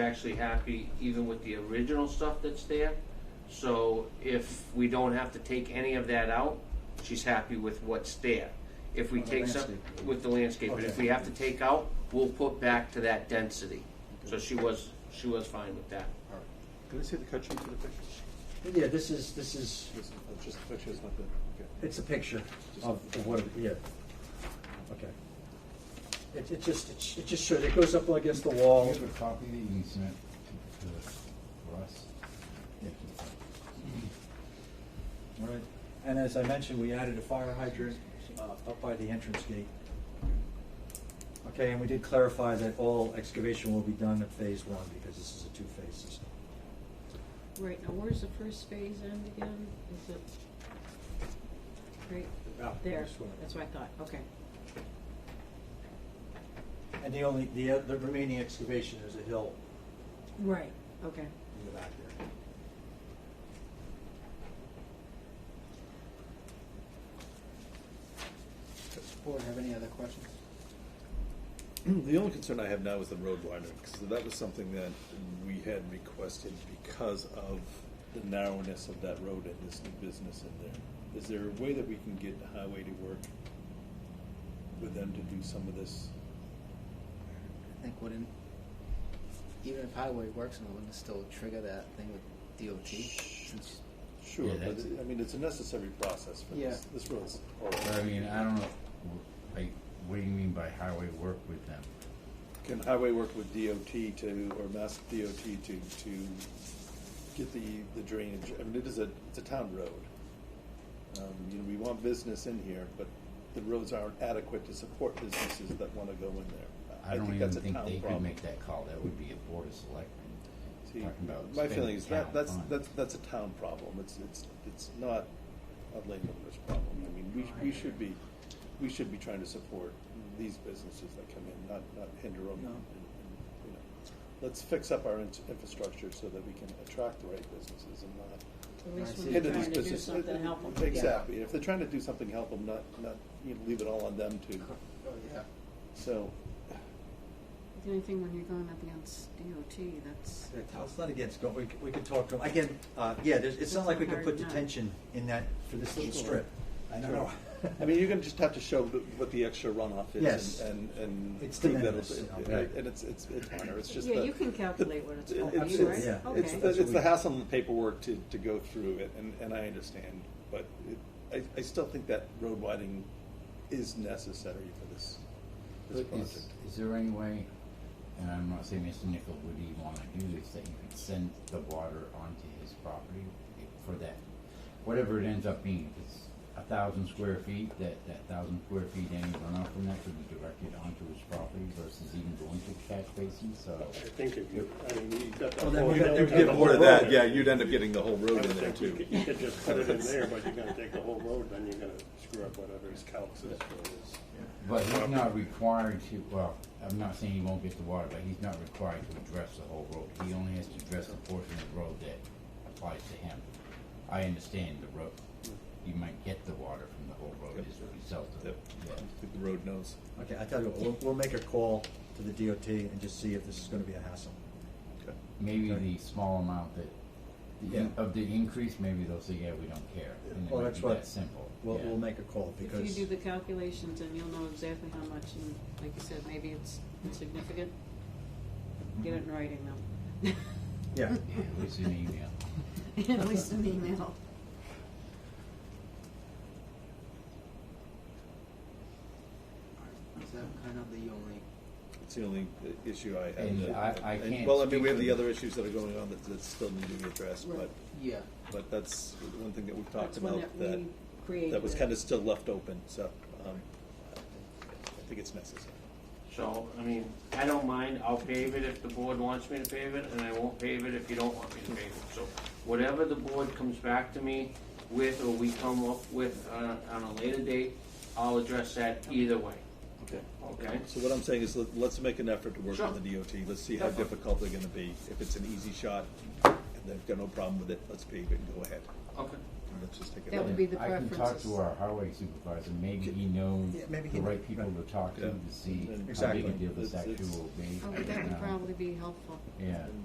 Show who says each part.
Speaker 1: actually happy even with the original stuff that's there. So if we don't have to take any of that out, she's happy with what's there. If we
Speaker 2: On the
Speaker 1: take some,
Speaker 2: landscape.
Speaker 1: with the landscape, but if
Speaker 2: Okay.
Speaker 1: we have to take out, we'll put back to that density. So she was, she was fine with that.
Speaker 2: All right.
Speaker 3: Can I see the cut sheet for the picture?
Speaker 2: Yeah, this is, this is,
Speaker 3: This is- oh, Just the picture, it's not the, okay.
Speaker 2: it's a picture of of what, it- yeah. Okay. It, it just, it sh- it just shows, it goes up against the
Speaker 4: Do
Speaker 2: wall.
Speaker 4: you have a copy that you can send to, to, for us?
Speaker 2: All right. And as I mentioned, we added a fire hydrant uh, up by the entrance gate. Okay, and we did clarify that all excavation will be done at phase one because this is a two-phase system.
Speaker 5: Right, now where's the first phase end again? Is it? Right
Speaker 2: Out
Speaker 5: there,
Speaker 2: this way.
Speaker 5: that's what I thought, okay.
Speaker 2: And the only, the, the remaining excavation is a hill
Speaker 5: Right. Okay.
Speaker 2: in the back there.
Speaker 6: Does the board have any other questions?
Speaker 3: The only concern I have now is the road widening, because that was something that we had requested because of the narrowness of that road and this new business in there. Is there a way that we can get the highway to work with them to do some of this?
Speaker 6: I think wouldn't, even if highway works, and it wouldn't still trigger that thing with DOT, since
Speaker 3: Sure,
Speaker 4: Yeah,
Speaker 3: but,
Speaker 4: that's-
Speaker 3: I mean, it's a necessary process for this,
Speaker 6: Yeah.
Speaker 3: this road's
Speaker 4: But
Speaker 3: horrible.
Speaker 4: I mean, I don't know, wh- like, what do you mean by highway work with them?
Speaker 3: Can highway work with DOT to, or Mass DOT to, to get the, the drainage, I mean, it is a, it's a town road. Um, you know, we want business in here, but the roads aren't adequate to support businesses that wanna go in there.
Speaker 4: I don't even
Speaker 3: that's a
Speaker 4: think
Speaker 3: town
Speaker 4: they could
Speaker 3: problem.
Speaker 4: make that call, that would be a board of selectmen.
Speaker 3: See,
Speaker 4: talking about
Speaker 3: My
Speaker 4: spending
Speaker 3: feeling is
Speaker 4: town
Speaker 3: that, that's,
Speaker 4: funds.
Speaker 3: that's, that's a town problem, it's, it's, it's not a landowner's problem. I mean, we, we should be, we should be trying to support these businesses that come in, not, not hinder them.
Speaker 6: No.
Speaker 3: and- and, you know. Let's fix up our in- infrastructure so that we can attract the right businesses and not
Speaker 5: At least
Speaker 6: see.
Speaker 5: when
Speaker 6: Hit
Speaker 5: they're trying
Speaker 3: hinder these
Speaker 5: to do
Speaker 3: businesses.
Speaker 5: something, help them.
Speaker 3: Exactly, if they're trying to do something, help them, not, not, you know, leave it all on them to,
Speaker 5: Uh-huh.
Speaker 6: Oh, yeah.
Speaker 3: so,
Speaker 5: The only thing when you're going up against DOT, that's,
Speaker 2: It's not against, go- we, c- we could talk to them, again, uh, yeah, there's, it's not like we could put detention in that, for this little strip. I don't know.
Speaker 3: I mean, you're gonna just have to show the- what the extra runoff is.
Speaker 2: Yes.
Speaker 3: And, and.
Speaker 2: It's
Speaker 3: prove
Speaker 2: de
Speaker 3: that
Speaker 2: minimis,
Speaker 3: it's-
Speaker 2: you know, right.
Speaker 3: And it's, it's, it's minor, it's just the.
Speaker 5: yeah, you can calculate what it's
Speaker 3: it-
Speaker 5: going
Speaker 2: Oh,
Speaker 5: to
Speaker 3: it's-
Speaker 5: be, right?
Speaker 2: absolutely, yeah.
Speaker 3: It's,
Speaker 5: Okay.
Speaker 3: the- it's the
Speaker 2: That's what we-
Speaker 3: hassle and the paperwork to, to go through it, and, and I understand, but it, I, I still think that road widening is necessary for this, this
Speaker 4: But
Speaker 3: project.
Speaker 4: is, is there any way, and I'm not saying Mr. Nichol would even wanna do this, that you could send the water onto his property for that? Whatever it ends up being, if it's a thousand square feet, that, that thousand square feet, any runoff from that could be directed onto his property versus even going to the catch basin, so.
Speaker 7: I think if you, I mean, you got the.
Speaker 2: Well, Oh, then
Speaker 7: whole-
Speaker 2: we got-
Speaker 7: you
Speaker 2: then we
Speaker 7: got
Speaker 2: get
Speaker 7: the
Speaker 2: more
Speaker 7: whole
Speaker 2: of
Speaker 7: road.
Speaker 3: you'd end up getting the whole
Speaker 7: I
Speaker 3: road
Speaker 7: would think you could, you could just put it in there, but you're gonna take the whole road, then you're gonna screw up whatever his calcs is for his.
Speaker 4: But he's not required to, well, I'm not saying he won't get the water, but he's not required to address the whole road. He only has to address the portion of the road that applies to him. I understand the road, you might get the water from the whole road as a result of
Speaker 3: Yep.
Speaker 4: it.
Speaker 3: The road knows.
Speaker 2: Okay, I tell you what, we'll, we'll make a call to the DOT and just see if this is gonna be a hassle.
Speaker 3: Okay.
Speaker 4: Maybe the small amount that, the in-
Speaker 2: Yeah.
Speaker 4: of the increase, maybe they'll say, yeah, we don't care. And it
Speaker 2: Well,
Speaker 4: might
Speaker 2: that's
Speaker 4: be
Speaker 2: what-
Speaker 4: that simple.
Speaker 2: We'll,
Speaker 4: Yeah.
Speaker 2: we'll make a call because.
Speaker 5: If you do the calculations, then you'll know exactly how much, and like you said, maybe it's insignificant. Get it in writing though.
Speaker 2: Yeah.
Speaker 4: Yeah, at least an email.
Speaker 5: At least an email.
Speaker 6: Is that kind of the only,
Speaker 3: It's the only uh, issue I have.
Speaker 4: And I- I
Speaker 3: And-
Speaker 4: can't
Speaker 3: Well, I mean,
Speaker 4: speak
Speaker 3: we have the
Speaker 4: with-
Speaker 3: other issues that are going on that, that still need to be addressed, but,
Speaker 5: Right.
Speaker 6: yeah,
Speaker 3: but that's one thing that we've talked
Speaker 5: That's one
Speaker 3: about
Speaker 5: that
Speaker 3: that,
Speaker 5: we created.
Speaker 3: that was kind of still left open, so, um, I think it's necessary.
Speaker 1: So, I mean, I don't mind, I'll pave it if the board wants me to pave it, and I won't pave it if you don't want me to pave it. So whatever the board comes back to me with, or we come up with on, on a later date, I'll address that either way,
Speaker 3: Okay.
Speaker 1: okay?
Speaker 3: So what I'm saying is, let- let's make an effort to work
Speaker 1: Sure.
Speaker 3: with the DOT, let's see how
Speaker 1: Definitely.
Speaker 3: difficult they're gonna be. If it's an easy shot, and they've got no problem with it, let's pave it and go ahead.
Speaker 1: Okay,
Speaker 3: Let's just take it.
Speaker 5: That would be the
Speaker 4: I can talk to
Speaker 5: preferences.
Speaker 4: our highway supervisor, maybe he knows
Speaker 2: Yeah, maybe he
Speaker 4: the right
Speaker 2: knows,
Speaker 4: people to
Speaker 2: right.
Speaker 4: talk to
Speaker 3: Yeah.
Speaker 4: to see how big
Speaker 2: Exactly.
Speaker 4: a deal this
Speaker 3: It's- it's-
Speaker 4: actually will be.
Speaker 5: Oh, that
Speaker 4: Um,
Speaker 5: would probably be helpful.
Speaker 4: Yeah.